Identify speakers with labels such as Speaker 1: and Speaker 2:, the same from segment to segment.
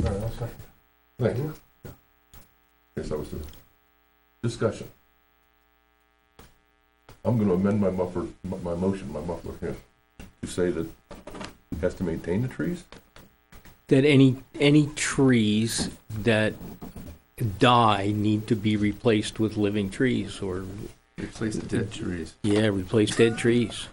Speaker 1: right, I'll second. Thank you. Yes, that was the discussion. I'm gonna amend my muffler, my my motion, my muffler here, to say that it has to maintain the trees?
Speaker 2: that any, any trees that die need to be replaced with living trees or,
Speaker 3: Replace the dead trees.
Speaker 2: yeah, replace dead trees.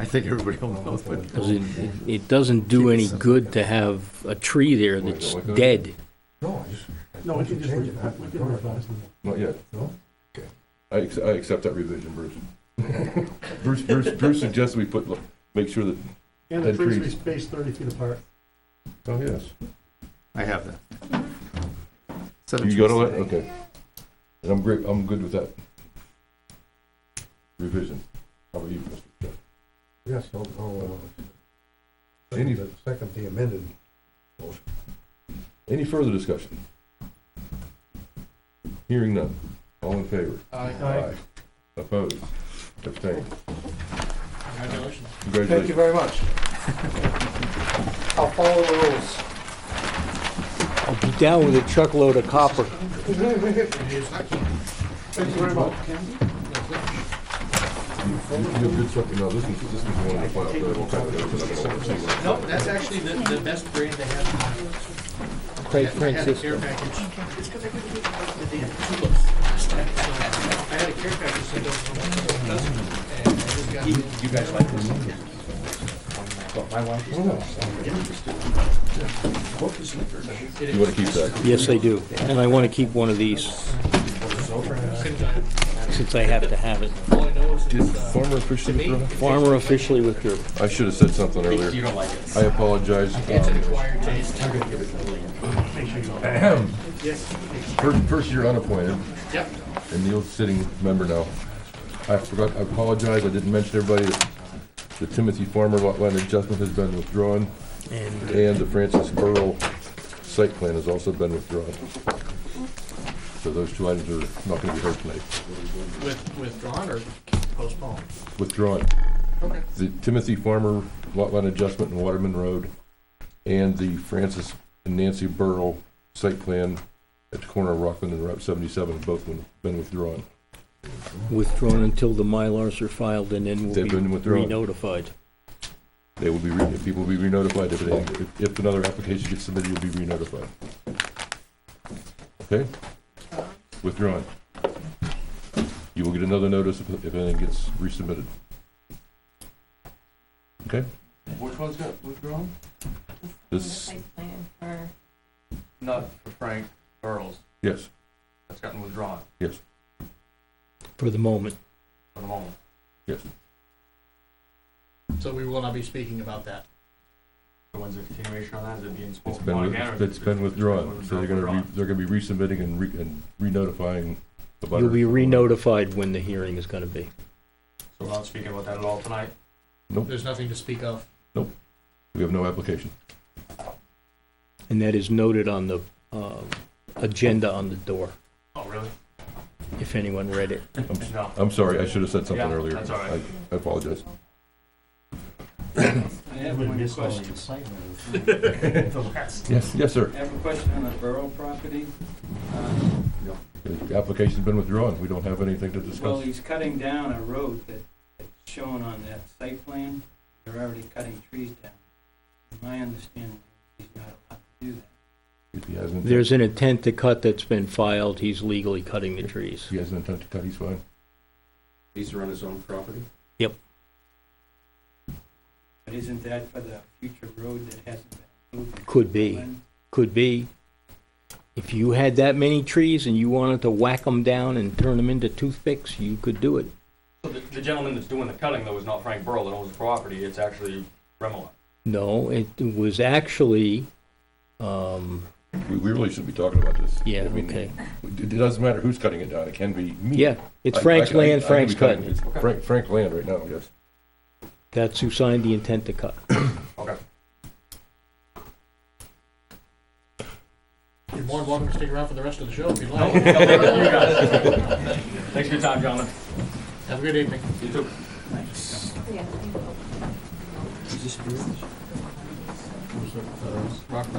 Speaker 3: I think everybody will know, but
Speaker 2: Because it, it- it doesn't do any good to have a tree there that's dead.
Speaker 1: No, I just.
Speaker 4: No, we can just read that. We can revise
Speaker 1: Not yet.
Speaker 4: No?
Speaker 1: Okay. I, ac- I accept that revision, Bruce. Bruce, Bruce, Bruce suggests we put, make sure that,
Speaker 4: And the
Speaker 1: Dead
Speaker 4: trees be
Speaker 1: trees.
Speaker 4: spaced thirty feet apart.
Speaker 1: oh, yes.
Speaker 3: I have that. Set of
Speaker 1: You got
Speaker 3: trees
Speaker 1: all that?
Speaker 3: today.
Speaker 1: Okay. And I'm great, I'm good with that. Revision. How about you, Mr. Chair?
Speaker 5: Yes, oh, I'll, I'll, uh,
Speaker 1: Any-
Speaker 5: second the- second the amended.
Speaker 1: Any further discussion? Hearing none. All in favor?
Speaker 4: Aye.
Speaker 1: Opposed? Abstained?
Speaker 6: Congratulations.
Speaker 5: Thank
Speaker 1: Congratulations.
Speaker 5: you very much. I'll follow the rules.
Speaker 2: I'll be down with a truckload of copper.
Speaker 5: Thank you very much.
Speaker 1: You you have good stuff, you know, this is, this is one of the files that I will kind of-
Speaker 6: No, that's actually the, the best grade they have.
Speaker 2: Craig
Speaker 6: I had a care
Speaker 2: Francisco.
Speaker 6: package. They had two books. So, I had a care package, so don't, doesn't, and I just got. You guys like this?
Speaker 1: You want to keep that?
Speaker 2: Yes, I do. And I want to keep one of these since I have to have it.
Speaker 6: All I know is it's, uh,
Speaker 1: Former Christian.
Speaker 2: Farmer officially withdrew.
Speaker 1: I should have said something earlier. You don't like it. I apologize.
Speaker 6: it's
Speaker 1: Um,
Speaker 6: acquired taste.
Speaker 1: First, first you're unappointed,
Speaker 6: Yep.
Speaker 1: and Neil's sitting member now. I forgot, I apologize, I didn't mention everybody, that the Timothy Farmer lot line adjustment has been withdrawn,
Speaker 2: And
Speaker 1: and the Francis Burrow site plan has also been withdrawn. So those two items are not gonna be heard tonight.
Speaker 6: With, withdrawn or postponed?
Speaker 1: Withdrawn.
Speaker 6: Okay.
Speaker 1: The Timothy Farmer lot line adjustment in Waterman Road, and the Francis and Nancy Burrow site plan at the corner of Rockland and Route seventy-seven have both been- been withdrawn.
Speaker 2: withdrawn until the Mylars are filed and then
Speaker 1: They've been
Speaker 2: we'll be
Speaker 1: withdrawn.
Speaker 2: re-notified.
Speaker 1: They will be, re- people will be re-notified if, they- if- if another application gets submitted, you'll be re-notified. Okay? Withdrawn. You will get another notice if if anything gets resubmitted. Okay?
Speaker 7: Which one's got withdrawn?
Speaker 1: This,
Speaker 7: plan for. Not for Frank Burrows,
Speaker 1: yes,
Speaker 7: that's gotten withdrawn
Speaker 1: yes,
Speaker 2: For the moment,
Speaker 7: for the moment.
Speaker 1: yes.
Speaker 6: So we will not be speaking about that.
Speaker 7: The one's a continuation on that, is it being
Speaker 1: It's
Speaker 7: spoken
Speaker 1: been,
Speaker 7: about
Speaker 1: with-
Speaker 7: again? or-
Speaker 1: it's been withdrawn, so they're gonna, re-
Speaker 7: Withdrawn.
Speaker 1: they're gonna be resubmitting and re, and re-notifying the butter.
Speaker 2: you'll be re-notified when the hearing is going to be.
Speaker 7: So we're not speaking about that at all tonight?
Speaker 6: There's nothing to speak of.
Speaker 1: We have no application.
Speaker 2: And that is noted on the uh, agenda on the door,
Speaker 7: Oh, really?
Speaker 2: if anyone read it.
Speaker 1: I'm, s-
Speaker 7: No.
Speaker 1: I'm sorry, I should have said something
Speaker 7: Yeah,
Speaker 1: earlier.
Speaker 7: that's all right.
Speaker 1: I- I apologize.
Speaker 8: I have one question.
Speaker 7: The last.
Speaker 1: Yes, yes, sir.
Speaker 8: I have a question on the borough property. Uh,
Speaker 1: The application's been withdrawn, we don't have anything to
Speaker 8: Well,
Speaker 1: discuss.
Speaker 8: he's cutting down a road that, that's shown on that site plan. They're already cutting trees down. My understanding, he's not allowed to do that.
Speaker 1: If he has an,
Speaker 2: There's
Speaker 1: if
Speaker 2: an intent to cut that's been filed, he's legally cutting the trees.
Speaker 1: he has an intent to cut, he's fine.
Speaker 3: These are on his own property?
Speaker 8: But isn't that for the future road that hasn't been moved?
Speaker 2: Could be,
Speaker 8: When-
Speaker 2: could be. If you had that many trees and you wanted to whack them down and turn them into toothpicks, you could do it.
Speaker 7: So the, the gentleman that's doing the cutting though is not Frank Burrow that owns the property, it's actually Remillard.
Speaker 2: No, it was actually, um,
Speaker 1: We, we really shouldn't be talking about this.
Speaker 2: yeah,
Speaker 1: I mean,
Speaker 2: okay.
Speaker 1: It it doesn't matter who's cutting it down, it can be me.
Speaker 2: Yeah, it's
Speaker 1: I- I-
Speaker 2: Frank's
Speaker 1: I- I
Speaker 2: land,
Speaker 1: could be
Speaker 2: Frank's
Speaker 1: cutting-
Speaker 2: cutting.
Speaker 1: it's Frank, Frank land right now, yes.
Speaker 2: That's who signed the intent to cut.
Speaker 7: Okay.
Speaker 6: You're more than welcome to stick around for the rest of the show if you'd like.
Speaker 7: Thanks for your time, gentlemen.
Speaker 6: Have a good evening.
Speaker 7: You too.
Speaker 4: Rock